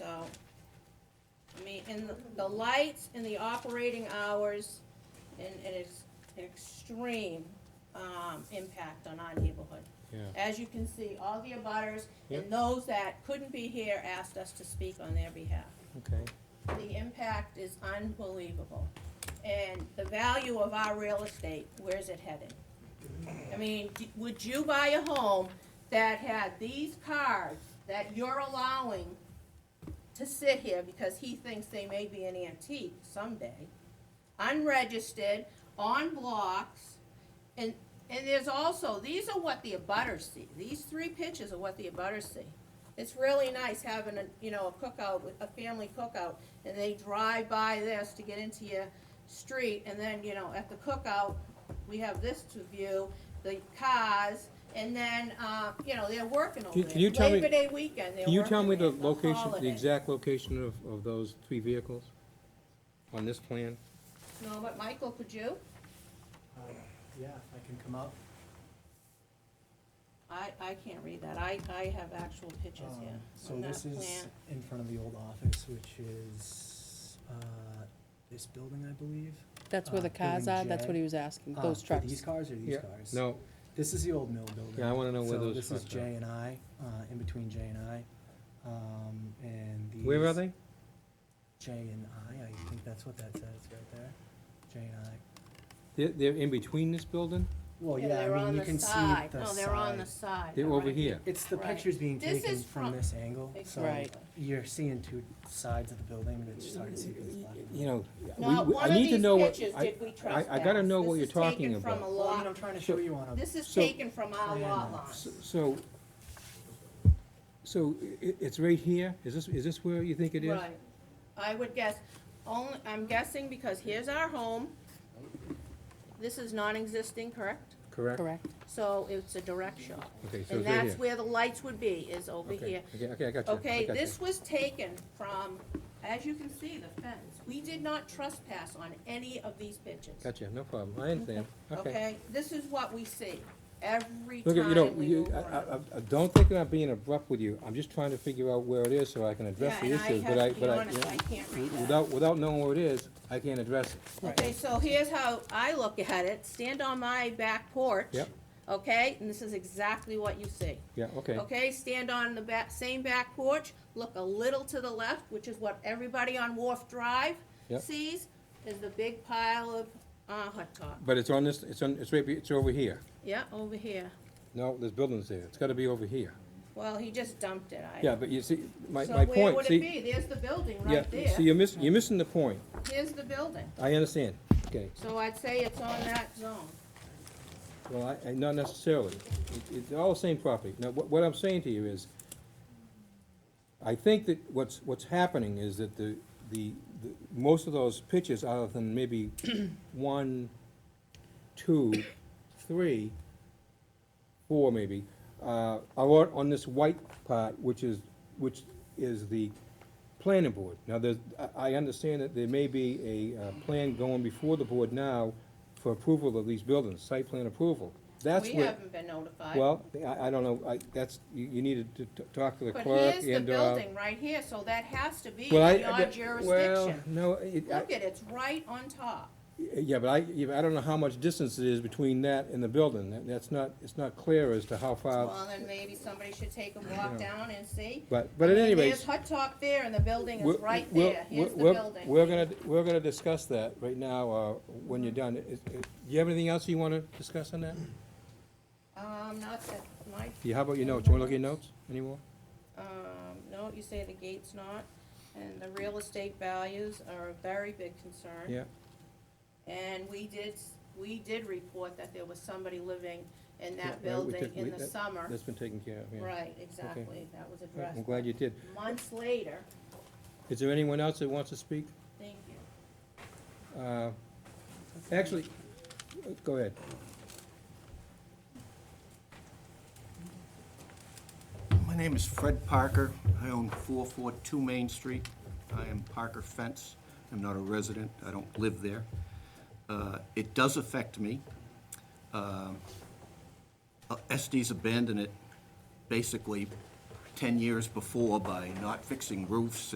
about. I mean, and the- the lights and the operating hours, and it is extreme, um, impact on our neighborhood. Yeah. As you can see, all the abutters Yep. and those that couldn't be here asked us to speak on their behalf. Okay, The impact is unbelievable. And the value of our real estate, where's it headed? I mean, d- would you buy a home that had these cars that you're allowing to sit here because he thinks they may be an antique someday, unregistered, on blocks, and, and there's also, these are what the abutters see, these three pictures are what the abutters see. It's really nice having a, you know, a cookout, with- a family cookout, and they drive by this to get into your street, and then, you know, at the cookout, we have this to view, the cars, and then, uh, you know, they're working over Can- there. can you tell me- Labor Day weekend, they're can you tell me working the there, location, the holiday. exact location of, of those three vehicles on this plan? No, but Michael, could you? Um, Yeah, if I can come up. I, I can't read that, I, I have actual pictures Um, here. So on that this is plan. in front of the old office, which is, uh, this building, I believe. That's where Uh, the cars Building are, that's J. what he was asking, Uh, those for trucks. These cars or these Yeah, cars? No, This is the old mill building. Yeah, I wanna know where those So this is trucks are. J and I, uh, in between J and I, um, and these. where are they? J and I, I think that's what that says right there, J and I. They're, they're in between this building? Well, Yeah, oh, yeah, they're I on mean, you the can see the side. side. No, they're on the side. They're all over right. here. It's the Right. pictures being This taken is from from- this angle, so. Exactly. You're seeing two sides of the building, and it's just hard to see what's left. You know, Now, we, one I of need to these know what, pictures I- did we I, trespass? I gotta know what This you're is talking taken from a about. Well, I mean, I'm lot, trying to show you on a, this is So- taken from our Yeah. lot line. S- So, so i- it's right here? Is this, is this where you think it is? Right, I would guess, only, I'm guessing because here's our home. This is non-existing, correct? Correct? Correct. So it's a direct shot. Okay, And so it's right that's here. where the lights would be, is over Okay, here. Okay, okay, I got you. I Okay, got you. this was taken from, as you can see, the fence. We did not trespass on any of these pictures. Gotcha, no problem, I understand, okay. Okay, this is what we see every Look, at- you know, time we you, move I, around. I, I- I don't think I'm being abrupt with you, I'm just trying to figure out where it is so I can address the Yeah, issues, but and I I, have to be but I, honest, I can't read w- that. without, without knowing where it is, I can't address it. Okay, so here's how I look at it. Stand on my back porch. Yep. Okay, and this is exactly what you see. Yeah, okay, Okay, stand on the back, same back porch, look a little to the left, which is what everybody on Wharf Drive Yep. sees, is the big pile of, uh, hot dog. but it's on this, it's on, it's right, be- it's over here. Yeah, over here. No, there's buildings there, it's gotta be over here. Well, he just dumped it, I. Yeah, but you see, my, my So where point, would it see, be? There's the building yeah, right see, there. you're miss, you're missing the point, Here's the building. I understand, okay. So I'd say it's on that zone. Well, I, I, not necessarily. It, it's all the same property. Now, what, what I'm saying to you is, I think that what's, what's happening is that the, the, the, most of those pitches, other than maybe one, two, three, four maybe, uh, are on on this white part, which is, which is the planning board. Now, there's, I, I understand that there may be a, uh, plan going before the board now for approval of these buildings, site plan approval. That's We where, haven't been notified. well, I, I don't know, I, that's, you, you needed to t- talk to the But clerk here's the and, uh. building right here, so that has to be in well, I- your Well, jurisdiction. no, it, I, Look at, it's right on top. Yeah, but I, yeah, but I don't know how much distance it is between that and the building. That- That's not, it's not clear as to how Well, far, then maybe somebody should take a walk down and see. but, but I at mean, any rate. There's hot top there and the building we're- is right we're- there. Here's the we're- building. We're gonna, we're gonna discuss that right now, uh, when you're done. Is- is- Do you have anything else you wanna discuss on that? Um, not that, my, Yeah, how about your notes? You wanna look at your notes anymore? um, no, you say the gate's not, and the real estate values are a very big concern. Yeah, And we did, we did report that there was somebody living in Yeah, well, that we building took- we- in the that- summer. that's been taken care of, yeah. Right, exactly, that was addressed. I'm glad you did. Months later, Is there anyone else that wants to speak? thank you. Uh, Actually, go ahead. My name is Fred Parker. I own 442 Main Street. I am Parker Fence. I'm not a resident. I don't live there. Uh, It does affect me. Um, uh, Estes abandoned it basically 10 years before by not fixing roofs